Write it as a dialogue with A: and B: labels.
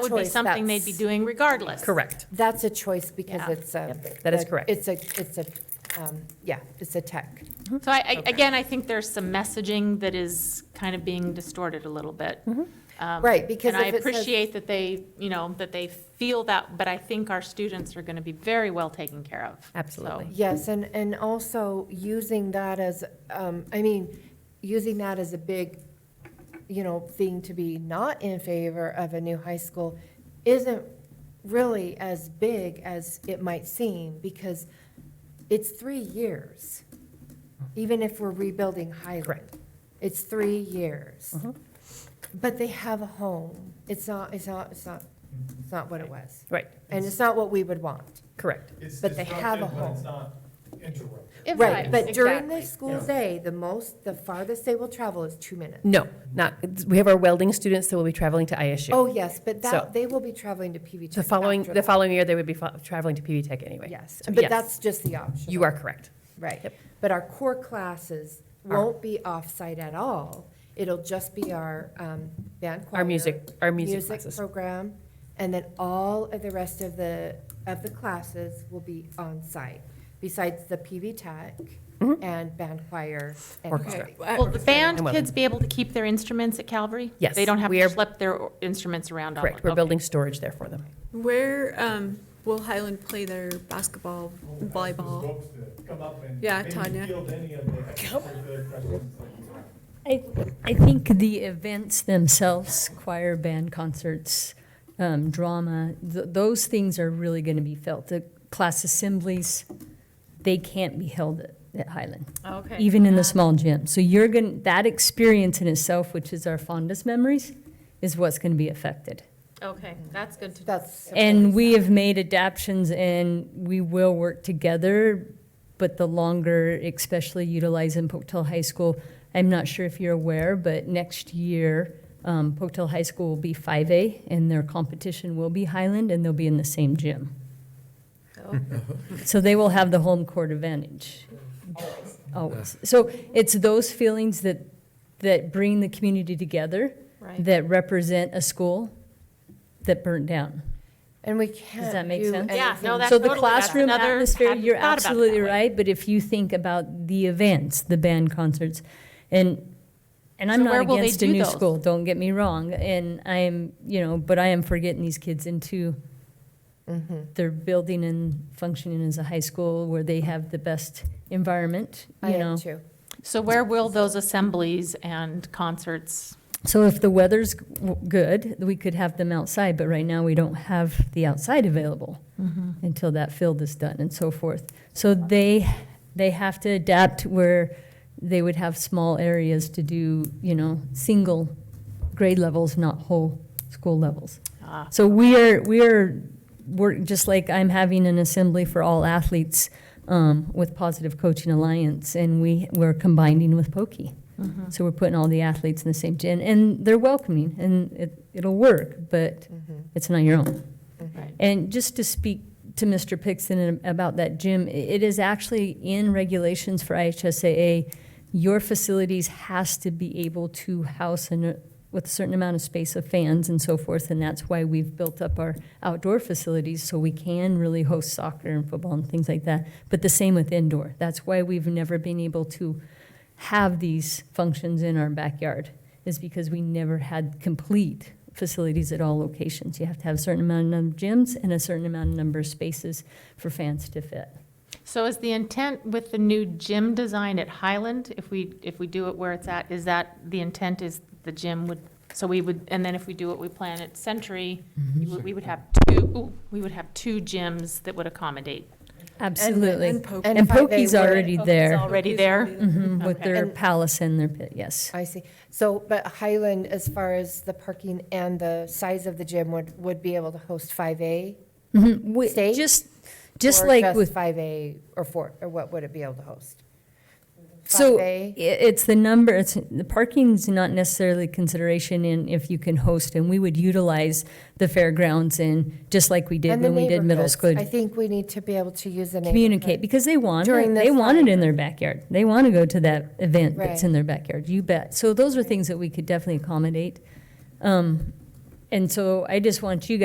A: would be
B: choice,
A: something they'd
B: that's-
A: be doing regardless.
C: Correct.
B: That's a choice because
A: Yeah.
B: it's a.
C: Yep, that is correct.
B: It's a, it's a, um, yeah, it's a tech.
A: So I, I- again, I think there's some messaging that is kind of being distorted a little bit. Um,
B: Mm-hmm. Right, because
A: And I
B: if it says-
A: appreciate that they, you know, that they feel that, but I think our students are going to be very well taken care of. So,
C: Absolutely.
B: Yes, and, and also using that as, um, I mean, using that as a big, you know, thing to be not in favor of a new high school isn't really as big as it might seem, because it's three years, even if we're rebuilding Highland.
C: Correct.
B: It's three years.
C: Mhm.
B: But they have a home. It's not, it's not, it's not, it's not what it was.
C: Right,
B: And it's not what we have want.
C: correct.
D: It's
B: But they have a
D: disruptive, but it's
B: home.
D: not interruptive.
A: It
B: Right,
A: vibes,
B: but during
A: exactly.
B: the school day, the most, the farthest they will travel is two minutes.
C: No, not, we have our welding students that will be traveling to
B: Oh,
C: ISU.
B: yes, but
C: So-
B: that, they will be traveling to PV Tech.
C: The following,
B: after
C: the
B: that.
C: following year, they would be fo- traveling to PV Tech anyway.
B: Yes,
C: So
B: but that's just the option.
C: You are correct.
B: Right,
C: Yep.
B: but our core classes
C: Are-
B: won't be off-site at all. It'll just be our um, band choir.
C: Our music, our music classes.
B: program, and then all of the rest of the, of the classes will be on-site, besides the PV Tech
C: Mhm.
B: E and band choir. and
C: Orchestra.
B: choir.
A: Will the band
C: And women.
A: kids be able to keep their instruments at Calvary?
C: Yes,
A: They don't have
C: we
A: to
C: are-
A: schlep their o- instruments around all
C: Correct, we're building storage there for them.
E: Uh, Where um, will Highland play their basketball, volleyball?
D: Folks to Come up and.
E: Oh. Yeah,
D: maybe
E: Tanya.
D: Field any of the extracurricular questions that you have.
F: I, I think the events themselves, choir, band concerts, um, drama, th- those things are really going to be felt. The class assemblies, they can't be held at, at Highland,
A: Okay.
F: even in the small gym. So you're going to, that experience in itself, which is our fondest memories, is what's going to be affected.
A: Okay, that's good to.
B: That's.
F: And we have made adaptions and we will work together, but the longer, especially utilizing Pocatello High School, I'm not sure if you're aware, but next year, um, Pocatello High School will be 5A and their competition will be Highland and they'll be in the same gym. So they will have the home court advantage. Always. So it's those feelings that, that bring the community together,
A: Right.
F: that represent a school that burnt down.
B: And we can't.
F: that make
B: do
F: sense?
A: Yeah, no,
B: anything-
A: that
F: So the
A: totally- that's
F: classroom
A: another-
F: atmosphere,
A: hadn't
F: you're
A: thought about it that
F: absolutely
A: way.
F: right, but if you think about the events, the band concerts, and, and I'm
A: So where
F: not
A: will they
F: against a
A: do
F: new
A: those?
F: school, don't get me wrong, and I'm, you know, but I am for getting these kids into
A: Mm-hmm.
F: their building and functioning as a high school where they have the best environment,
B: I
F: you know.
B: am too.
A: So where will those assemblies and concerts?
F: So if the weather's g- w- good, we could have them outside, but right now we don't have the outside available until that field is done and so forth. So they, they have to adapt where they would have small areas to do, you know, single grade levels, not whole school levels.
A: Ah.
F: So we are, we are, we're, just like I'm having an assembly for all athletes um, with Positive Coaching Alliance, and we, we're combining with Pokey. So we're putting all the athletes in the same gym, and they're welcoming, and it, it'll work, but it's not your own.
A: Right.
F: And just to speak to Mr. Pixon about that gym, i- it is actually in regulations for IHSAA, your facilities has to be able to house and with a certain amount of space of fans and so forth, and that's why we've built up our outdoor facilities, so we can really host soccer and football and things like that. But the same with indoor. That's why we've never been able to have these functions in our backyard is because we never had complete facilities at all locations. You have to have a certain amount of number of gyms and a certain amount of number of spaces for fans to fit.
A: So is the intent with the new gym design at Highland, if we, if we do it where it's at, is that, the intent is the gym would, so we would, and then if we do what we plan at Century, we would- we would have two, ooh, we would have two gyms that would accommodate.
F: Absolutely.
E: Poke.
F: And
B: if I- Oh, they
F: Pokey's
B: would-
F: already there
A: Already there?
E: Mm-hmm.
F: mhm, with
A: Okay.
F: their
B: And-
F: palace and their pit, yes.
B: I see. So, but Highland, as far as the parking and the size of the gym, would, would be able to host 5A?
F: Mhm, we-
B: State?
F: Just, just
B: or
F: like with
B: 5A or 4, or what would it be able to host?
F: So
B: 5A?
F: i- it's the number, it's, the parking's not necessarily consideration in if you can host, and we would utilize the fairgrounds and, just like we did
B: And the
F: when we did middle
B: neighborhoods.
F: school,
B: I think we need to be able to use the neighborhood.
F: communicate, because they want,
B: During
F: it.
B: the
F: they want it
B: summer.
F: in their backyard. They want to go to that event that's
B: Right.
F: in their backyard, you bet. So those are things that we could definitely accommodate. Um, And so I just want you guys